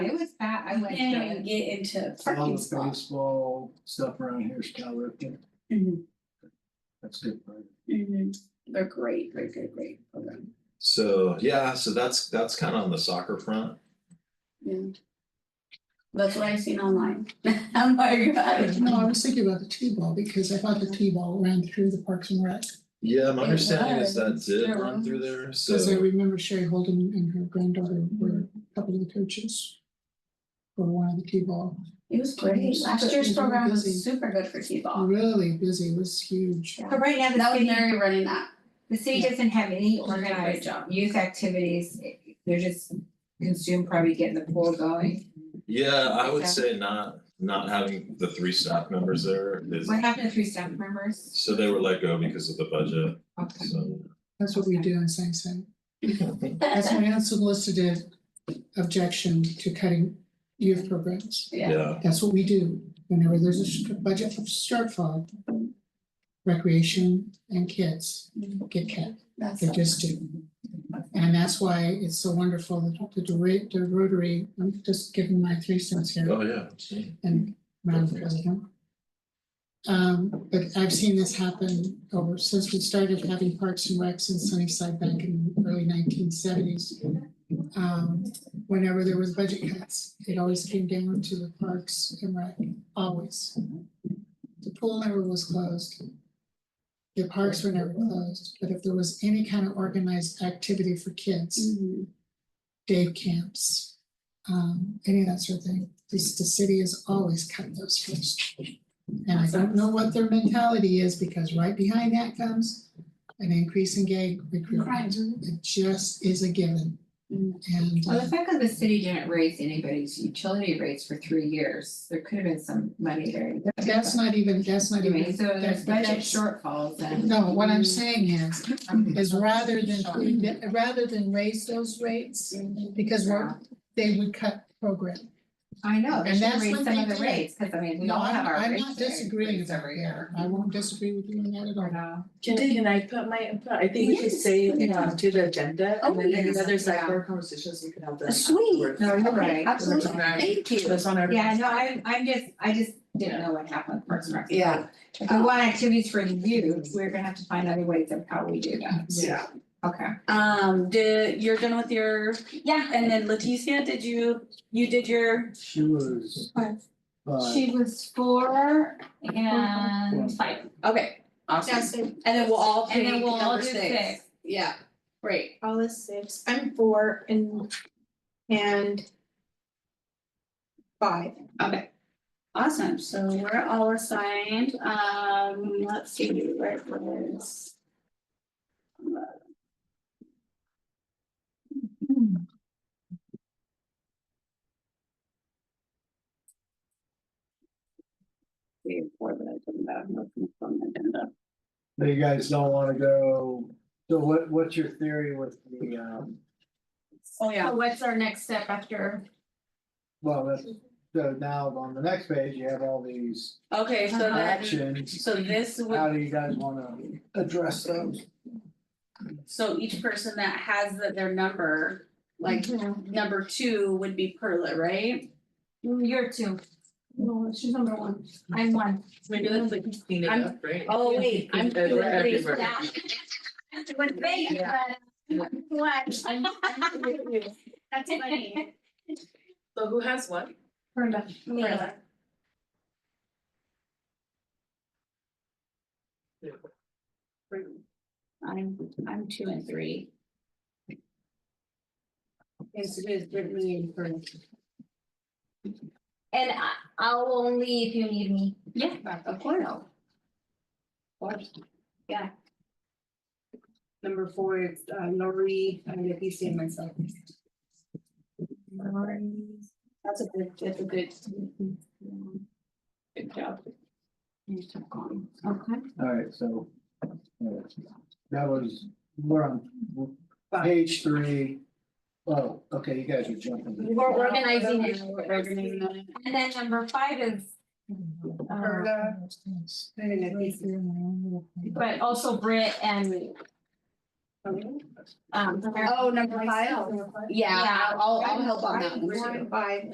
I went to Then you it. get into All parking the spots. baseball stuff around here is Calvert, Mhm, that's good, right? mhm. They're great, great, great, great program. So, yeah, so that's, that's kind of on the soccer front. That's what I've seen online. I'm like, I don't No, I know. was thinking about the T-ball because I thought the T-ball ran through the Parks and Rec. Yeah, my It understanding is that was. did There run through was. there, so. Because I remember Sherry Holden and her granddaughter were a couple of the coaches for one of the T-ball. It was great. Last year's program was super good for T-ball. Really busy, it was huge. But right now, the That was city, Mary running that. the city yeah. doesn't have any did a great organized um, job. youth activities, they're just consumed probably getting the pool going. Yeah, I would Okay. say not, not having the three staff members there is, What happened to three staff members? so they were let go because of the budget, Okay. so. That's what we do in Sang Sang. That's my unsolicited objection to cutting youth programs. Yeah. Yeah, That's what we do whenever there's a sh- budget shortfall. Recreation and kids get cut. That's They just do. And that's why it's so wonderful that the Rotary, the Rotary, I'm just giving my three cents here oh, yeah. see. and Madam President. Um, but I've seen this happen over, since we started having Parks and Recs in Sunnyside back in the early nineteen seventies. Um, whenever there was budget cuts, it always came down to the Parks and Rec, always. The pool never was closed. The parks were never closed, but if there was any kind of organized activity for kids, Mhm. day camps, um, any of that sort of thing. This, the city has always cut those first. And I don't know what their mentality is, because right behind that comes an increase in gay recruitment. It just is a given. Mm. And Mm-hmm. uh, Well, the fact that the city didn't raise anybody's utility rates for three years, there could have been some money there. uh, that's not even, that's not Anyway, even. so there's that's- budget shortfalls and. No, what I'm saying is, is rather than, putting the- rather than raise those rates, because we're, they would cut program. I know, they And should that's raise what some they of the did. rates, cause I mean, we No, all have I'm, our rates. I'm not there- disagreeing rates about every that. year. I won't disagree with you on that at all. Or no. Can, can I put my, I think we should Yes. say it um, to the agenda and Oh, then yes. there's other Yeah. side board conversations we can have then. Sweet. afterwards. No, you're Okay, right. Absolutely. Right. Thank you. That's on our. Yeah, no, I'm, I'm just, I just didn't know what happened with Parks and Rec. Yeah. If we want activities for youth, we're gonna have to find other ways of how we do that. Yeah. Okay. Um, did, you're done with your, Yeah. and then Leticia, did you, you did your, She was. Five. five. She was four and five. okay, awesome. That's it. And then we'll all And pick then we'll all number do six. six. Yeah, great. All is six. I'm four and, and five. Okay. Awesome, so we're all assigned, um, let's see, where it was. Three or four that I didn't have, nothing from the agenda. You guys don't wanna go, so what, what's your theory with the, um, Oh, yeah. So What's our next step after? well, that's, so now on the next page, you have all these Okay, so Uh-huh. then, actions. so this How would, do you guys wanna address those? so each person that has the- their number, like, Mm-hmm. number two would be Perla, right? Mm, You're two. No, she's number one. I'm one. Maybe that's like clean it I'm- up, right? Oh, wait, I'm Because doing we're three. everywhere. Yeah. With me, but what? I'm- I'm with you. That's funny. So who has what? Brenda. Perla. I'm, I'm two and three. Yes, it is Brittany and Brenda. And I, I'll only if you need me. Yeah, of course. Number four is uh, Lori, I'm gonna be seeing myself. That's a good, that's a good. Good job. Okay. Alright, so. uh, That was, we're on page three. Oh, okay, you guys are jumping. We're organizing it. Organizing that. And then number five is, uh, Perla. But but also Britt and um, me. Um, Oh, number five? myself. Yeah, I'll, I'll help on that one. We're too. five.